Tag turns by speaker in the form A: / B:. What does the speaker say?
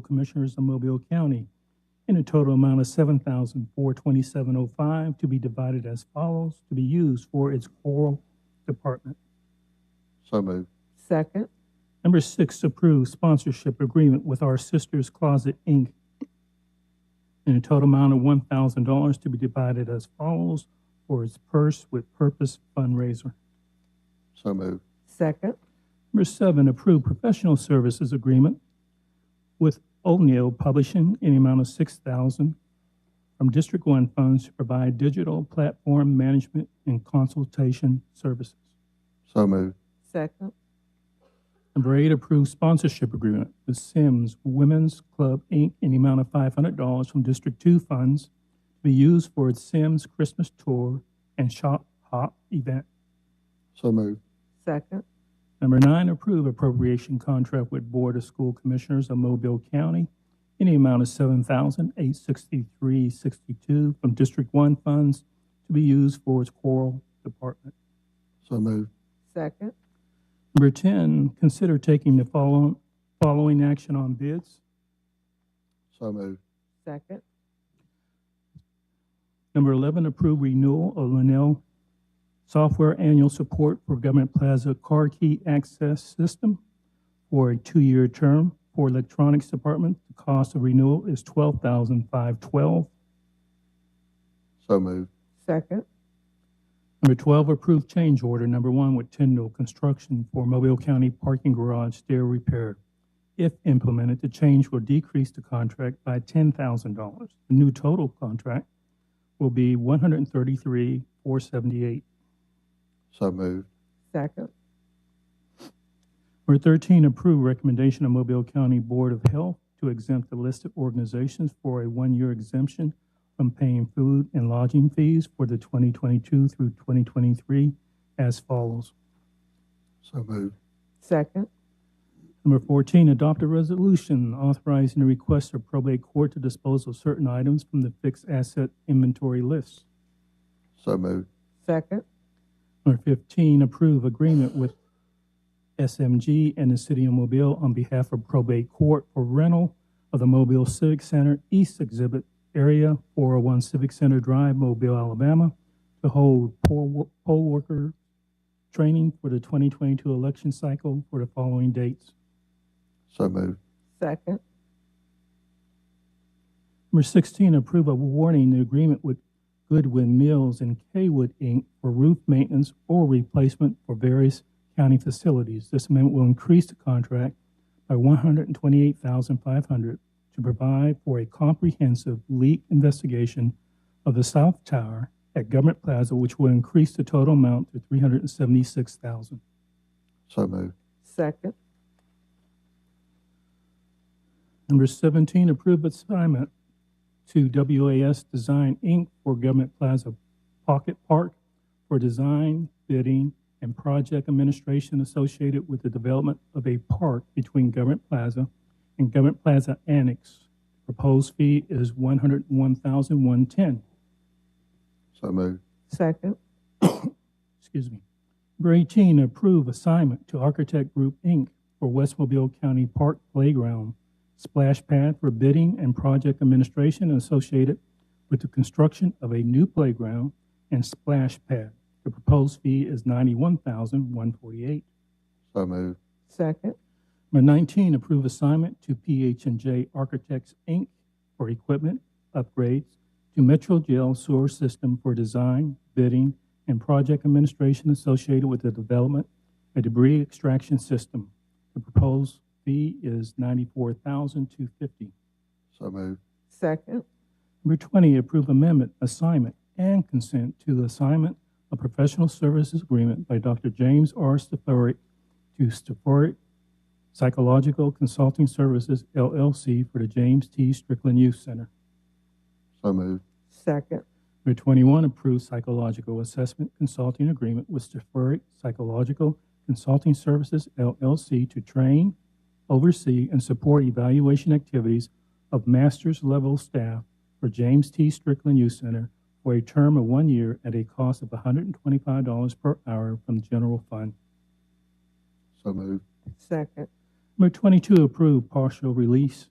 A: Commissioners of Mobile County in a total amount of seven thousand four twenty-seven oh five to be divided as follows, to be used for its coral department.
B: So moved.
C: Second.
A: Number six, approve sponsorship agreement with Our Sisters Closet, Inc. in a total amount of one thousand dollars to be divided as follows for its Purse with Purpose fundraiser.
B: So moved.
C: Second.
A: Number seven, approve professional services agreement with O'Neill Publishing in the amount of six thousand from District One funds to provide digital platform management and consultation services.
B: So moved.
C: Second.
A: Number eight, approve sponsorship agreement with Sims Women's Club, Inc. in the amount of five hundred dollars from District Two funds to be used for its Sims Christmas Tour and Shop Hop event.
B: So moved.
C: Second.
A: Number nine, approve appropriation contract with Board of School Commissioners of Mobile County in the amount of seven thousand eight sixty-three sixty-two from District One funds to be used for its coral department.
B: So moved.
C: Second.
A: Number ten, consider taking the following, following action on bids.
B: So moved.
C: Second.
A: Number eleven, approve renewal of Linnell Software Annual Support for Government Plaza Car Key Access System for a two-year term for Electronics Department. The cost of renewal is twelve thousand five twelve.
B: So moved.
C: Second.
A: Number 12, approve change order number one with Tyndall Construction for Mobile County Parking Garage stair repair. If implemented, the change will decrease the contract by $10,000. The new total contract will be $133,478.
B: So moved.
C: Second.
A: Number 13, approve recommendation of Mobile County Board of Health to exempt the listed organizations for a one-year exemption from paying food and lodging fees for the 2022 through 2023 as follows.
B: So moved.
C: Second.
A: Number 14, adopt a resolution authorizing the request of probate court to dispose of certain items from the fixed asset inventory lists.
B: So moved.
C: Second.
A: Number 15, approve agreement with SMG and the City of Mobile on behalf of probate court for rental of the Mobile Civic Center East Exhibit Area 401 Civic Center Drive, Mobile, Alabama, to hold poll wo- poll worker training for the 2022 election cycle for the following dates.
B: So moved.
C: Second.
A: Number 16, approve of awarding the agreement with Goodwin Mills and Kaywood, Inc. for roof maintenance or replacement for various county facilities. This amendment will increase the contract by $128,500 to provide for a comprehensive leak investigation of the south tower at Government Plaza, which will increase the total amount to $376,000.
B: So moved.
C: Second.
A: Number 17, approve assignment to WAS Design, Inc. for Government Plaza Pocket Park for design, bidding, and project administration associated with the development of a park between Government Plaza and Government Plaza Annex. Proposed fee is $101,110.
B: So moved.
C: Second.
A: excuse me. Number 18, approve assignment to Architect Group, Inc. for West Mobile County Park Playground splash pad for bidding and project administration associated with the construction of a new playground and splash pad. The proposed fee is $91,148.
B: So moved.
C: Second.
A: Number 19, approve assignment to ph and J Architects, Inc. for equipment upgrades to Metro Jail Sewer System for design, bidding, and project administration associated with the development of debris extraction system. The proposed fee is $94,250.
B: So moved.
C: Second.
A: Number 20, approve amendment, assignment, and consent to assignment of professional services agreement by Dr. James R. Steforic to Steforic Psychological Consulting Services LLC for the James T. Strickland Youth Center.
B: So moved.
C: Second.
A: Number 21, approve psychological assessment consulting agreement with Steforic Psychological Consulting Services LLC to train, oversee, and support evaluation activities of master's level staff for James T. Strickland Youth Center for a term of one year at a cost of $125 per hour from the general fund.
B: So moved.
C: Second.
A: Number 22, approve partial release